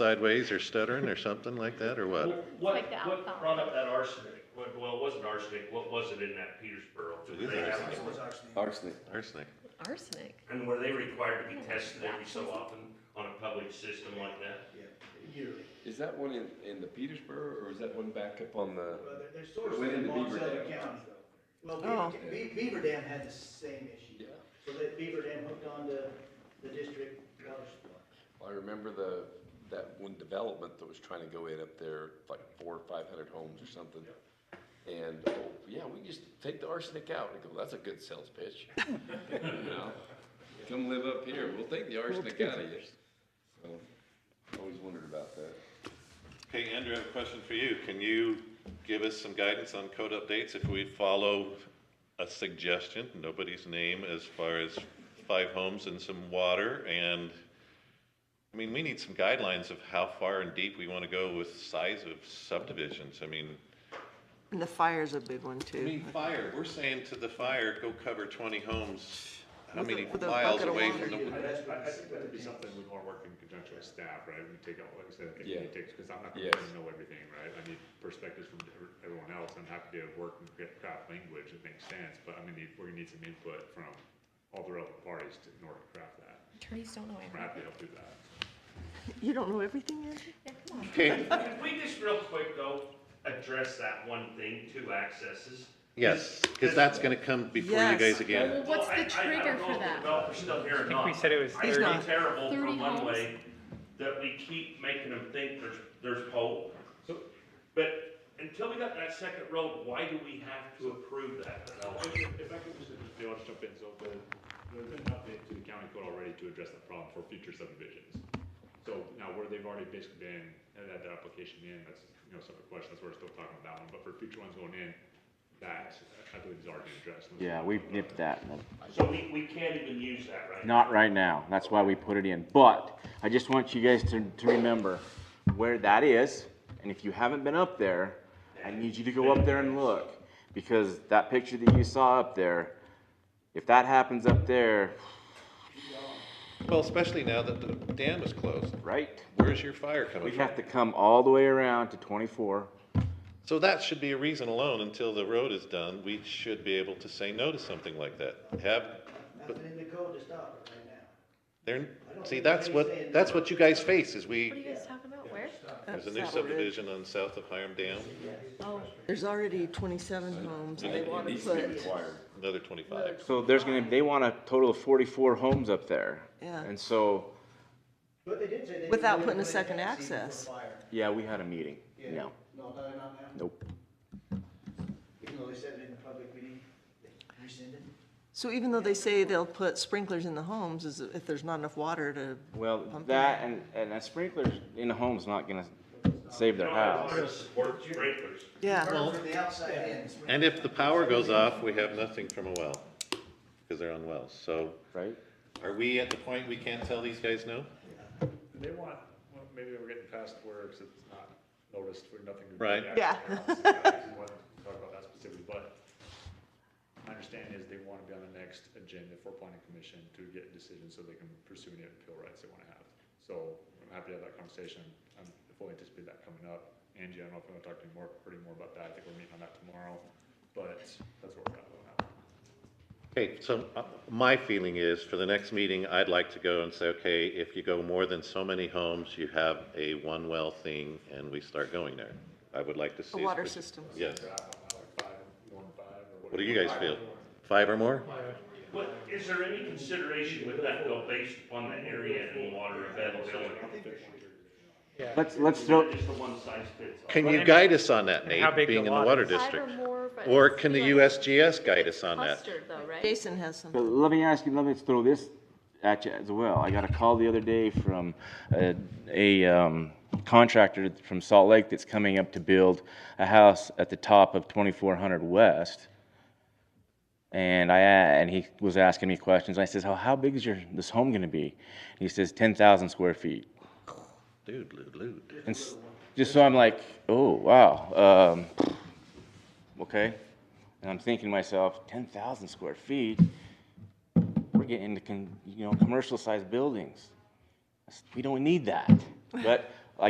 sideways or stuttering or something like that, or Well, what? What, Like the what alcohol. brought up that arsenic? What, well, it wasn't arsenic, what was it in that Petersboro? Did It is they have arsenic. it? Arsenic. Arsenic. Arsenic. And were they required to be tested every so often on a public system like that? yearly. Is that one in, in the Petersburg or is that one back up on the? Well, there- there's sources Within in the Beaver Monticello Dam. County. Well, Oh. Beaver, Be- Beaver Dam had the same issue. Yeah. So that Beaver Dam hooked onto the district water supply. I remember the, that one development that was trying to go in up there, like four or five hundred homes or something. And, oh, yeah, we just take the arsenic out. I go, that's a good sales pitch. You know? Come live up here. We'll take the arsenic out of you. So, Always wondered about that. Okay, Andrew, I have a question for you. Can you give us some guidance on code updates if we follow a suggestion, nobody's name, as far as five homes and some water? And, I mean, we need some guidelines of how far and deep we want to go with size of subdivisions. I mean, And the fire's a big one I too. mean, fire, we're saying to the fire, go cover twenty homes, how With a- many with a miles bucket of away water. from the, I, I I think that'd be something we wanna work in conjunction with staff, right, we take, out, like I said, I think we Yeah. need to, cause I'm not gonna Yes. really know everything, right? I need perspectives from ev- everyone else, I'm happy to work and get craft language that makes sense, but I'm gonna need, we're gonna need some input from all the relevant parties to, in order to craft that, Attorneys don't know I'm everything. happy to help do that. You don't know everything, Andrew? Yeah, come on. Could we just real quick though, address that one thing, two accesses? yes, because that's gonna come before you Yes. guys again. Well, what's Well, I- I- the I trigger don't know for if the that? Developer's still here or think we not. said it was I feel 30. terrible for 30 one homes. way, that we keep making them think there's, there's hope. But until we got that second road, why do we have to approve that? If I could just, if you want to jump in, so the, there's been an update to the county code already to address that problem for future subdivisions. So now where they've already basically been, had that application in, that's, you know, separate question, that's where we're still talking about that one, but for future ones going in, that, I believe is already addressed. Yeah, we've nipped that. in the- So we, we can't even use that right now. Not right now. That's why we put it in. But I just want you guys to, to remember where that is. And if you haven't been up there, I need you to go up there and look. Because that picture that you saw up there, if that happens up there, Well, especially now that the dam is closed, right? where's your fire coming We'd from? have to come all the way around to twenty-four. So that should be a reason alone, until the road is done, we should be able to say no to something like that. Have, Nothing in the code to stop it right now. there, see, that's what, that's what you guys face, is What are we, you guys talking about? Where? there's a That's new not what it is. subdivision on south of Hiram Dam, Oh, There's already twenty-seven homes and they want to Needs to be put, required. another twenty-five. So there's gonna, they want a total of forty-four homes up there. Yeah. And so, But they did say they. Without they putting a put in second that season for access. fire. yeah, we had a meeting. Yeah. No, No, no, not now. nope. Even though they said it in the public meeting, they rescinded. so even though they say they'll put sprinklers in the homes, is if there's not enough water to, Well, Pumping. that and, and a sprinkler in the home's not gonna save You their know, I house. want to support sprinklers. yeah. Burn from the outside in. And if the power goes off, we have nothing from a well, because they're on wells, so Right? are we at the point we can't tell these guys no? They want, well, maybe we're getting past where it's it's not noticed, we're nothing. Right. Yeah. Talk about that specifically, but my understanding is they wanna be on the next agenda for planning commission to get decisions so they can pursue any appeal rights they wanna have. So I'm happy to have that conversation, I'm fully anticipate that coming up. Angie, I don't know if you wanna talk to me more, pretty more about that, I think we're meeting on that tomorrow, but that's what we're at on that. Okay, so uh, my feeling is, for the next meeting, I'd like to go and say, okay, if you go more than so many homes, you have a one-well thing, and we start going there. I would like to see. A water system. Yes. Like five, one five or whatever. What do you guys feel? Five or more? What, is there any consideration with that though, based upon the area and water availability? Let's, let's throw, Just the one size fits all. Can you guide us on that, how Nate, big the being in the lot water is. five or district? more, but. Or can the Yeah. USGS guide us on that? Clustered though, right? Jason has some. but let me ask you, let me throw this at you as well. I got a call the other day from a, a um, contractor from Salt Lake that's coming up to build a house at the top of twenty-four hundred west. And I, and he was asking me questions. I says, "How how big is your, this home gonna be? And He says, ten thousand square feet. Dude, loot, loot. And s- just so I'm like, oh, wow, um, okay. And I'm thinking to myself, 10,000 square feet, we're getting into, con- you know, commercial sized buildings. That's- We don't need that. But